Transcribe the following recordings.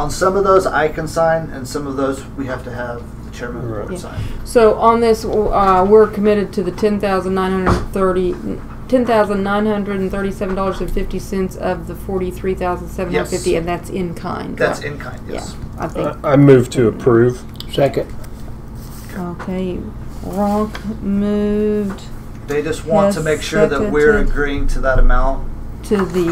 On some of those, I can sign, and some of those, we have to have the chairman of the board Right. sign. So on this, uh, we're committed to the ten thousand nine hundred thirty, ten thousand nine hundred and thirty-seven dollars and fifty cents of the forty-three thousand seven hundred fifty, Yes. and that's in kind. That's right? in kind, yes. Yeah, I think. I I move to approve. Second. Okay, Ronk moved They just want to Yes, make sure that second we're to- agreeing to that amount to the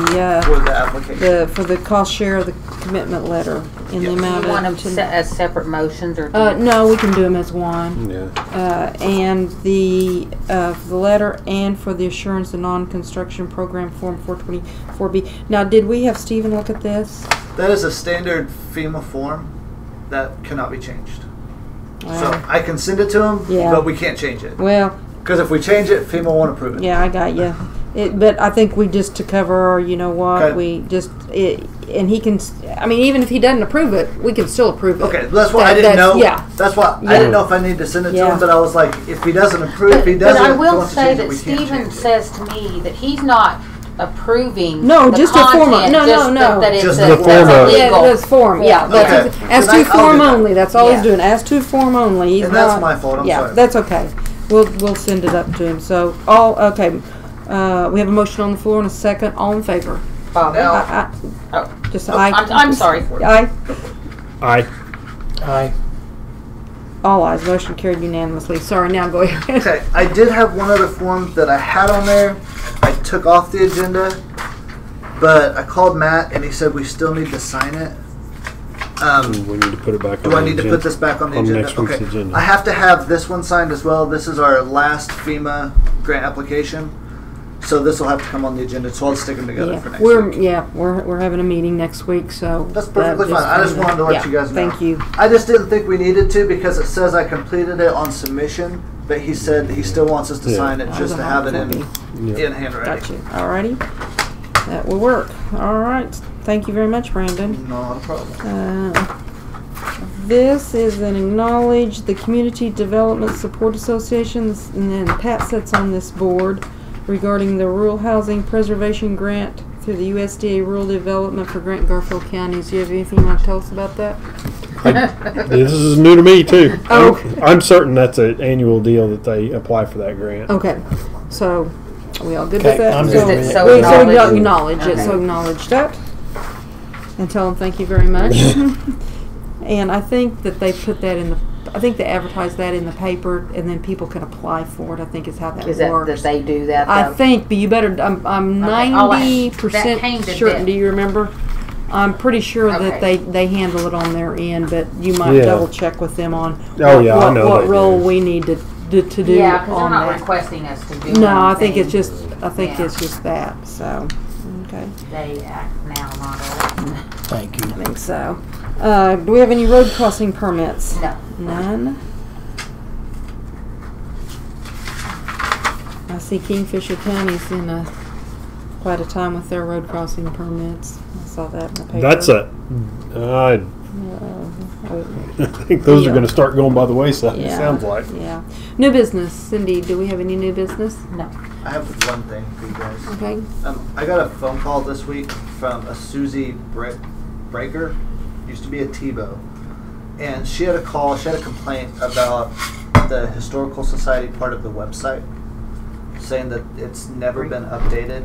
for uh, the application. the for the cost share of the commitment letter in the Yes. amount Do you want them of. se- as separate motions or? do Uh, you- no, we can do them as one. Yeah. Uh, and the, uh, for the letter and for the assurance and non-construction program form four twenty-four B. Now, did we have Stephen look at this? That is a standard FEMA form that cannot be changed. So Wow. I can send it to them, Yeah. but we can't change it. Well, Because if we change it, FEMA won't approve it. yeah, I got you. It, but I think we just to cover, our, you know Okay. what, we just, it, and he can, s- I mean, even if he doesn't approve it, we can still approve it. Okay, that's why I That- didn't know. that's- Yeah, That's why I Yeah. didn't know if I needed to send it to Yeah. him, but I was like, if he doesn't approve, if But he but doesn't I will want to say change it, that we can't Stephen change it. says to me that he's not approving. No, the just a form of- content, no, no, just that- no. That it's a, Just that's the form of- yeah, illegal. that's form, yeah, that's, Okay. as Then I- to I'll do form that. only, that's all he's Yeah. doing, as to form only, he's And that's not- my fault, I'm yeah, sorry. that's okay. We'll we'll send it up to him. So all okay. Uh, we have a motion on the floor and a second. All in favor? Bob, No. I, oh, I, just oh, aye. I'm, I'm sorry. Aye. I Aye. All ayes. Motion carried unanimously. Sorry. Now go ahead. Okay, I did have one other form that I had on there. I took off the agenda, but I called Matt and he said we still need to sign it. Um, Mm, we need to put it back on. do I the need to agenda. put this back on the On agenda? next week's okay. agenda. I have to have this one signed as well. This is our last FEMA grant application, so this will have to come on the agenda. So I'll stick them together for Yeah, next we're week. yeah we're, we're having a meeting next week, so That's that perfectly fine. I just kinda- wanted to let yeah, you guys know. Thank you. I just didn't think we needed to because it says I completed it on submission, but he said he still wants us to Yeah. sign it just to Uh, have it in Yeah. in handwriting. Got you. Alrighty. That will work. All right. Thank you very much, Brandon. Not a problem. Uh, This is an acknowledge the Community Development Support Associations, and then Pat sits on this board regarding the Rural Housing Preservation Grant through the USDA Rural Development for Grant Garfield Counties. Do you have anything you want to tell us about that? This is new to me too. Oh. I'm- I'm certain that's an annual deal that they apply for that grant. Okay, so, are we all good with Okay, that? I'm So- good Just with it's it. so We so we acknowledged. acknowledge it, so Okay. acknowledge that. And tell them thank you very much. And I think that they put that in the, I think they advertise that in the paper and then people can apply for it, I think is how that Is that, works. that they do that though? I think, but you better, I'm, I'm Okay, oh, I'll ask. ninety That came percent to certain, them. do you remember? I'm pretty sure that Okay. they, they handle it on their end, but you might Yeah. double check with them on Oh, what- yeah, I what- know What they role do. we need to, to to do Yeah, because they're on not that. requesting us to do anything. No, I think it's just, I think Yeah. it's just that, so, okay, They act now, not always. Thank I you. think so. Uh, do we have any road crossing permits? No. None? I see Kingfisher County's in a, quite a time with their road crossing permits. I saw that in the paper. That's a. I Uh, think those Yeah. are going to start going by the wayside. It Yeah. sounds like. Yeah. New business, Cindy, do we have any new business? No. I have one thing for you guys. Okay, Um, I got a phone call this week from a Susie Bre- Breaker, used to be a Tebow, and she had a call. She had a complaint about the historical society part of the website, saying that it's never been updated,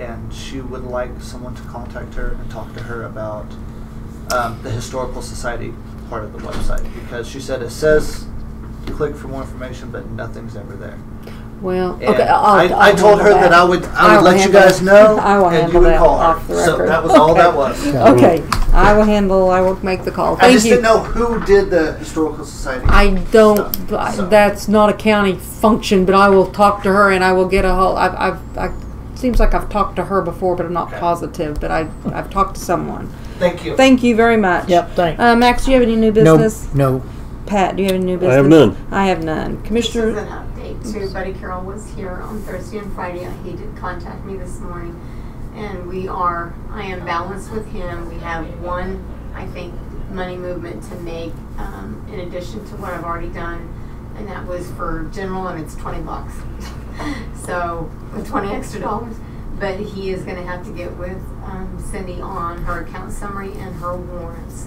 and she would like someone to contact her and talk to her about um, the historical society part of the website because she said it says click for more information, but nothing's ever there. well, And okay, I'll. I'll I, I told her handle that I would, I will would let you handle guys that. know, I will and you handle would that call off the her. So record. that was all that Okay. was. Okay, I will handle, I will make the call. I Thank just didn't you. know who did the historical society. I don't, stuff, I- so. that's not a county function, but I will talk to her and I will get a whole, I've, I've, I, seems like I've talked to her before, but I'm not Okay. positive, but I, I've talked to someone. Thank you. Thank you very much. Yep, thanks. Uh, Max, do you have any new No, business? no. Pat, do you have any new business? I have none. I have none. This is Commissioner, an update too. Buddy Carroll was here on Thursday and Friday. He did contact me this morning. And we are, I am balanced with him. We have one, I think, money movement to make, um, in addition to what I've already done. And that was for general and it's twenty bucks. So, with twenty extra dollars. But he is gonna have to get with um, Cindy on her account summary and her warrants.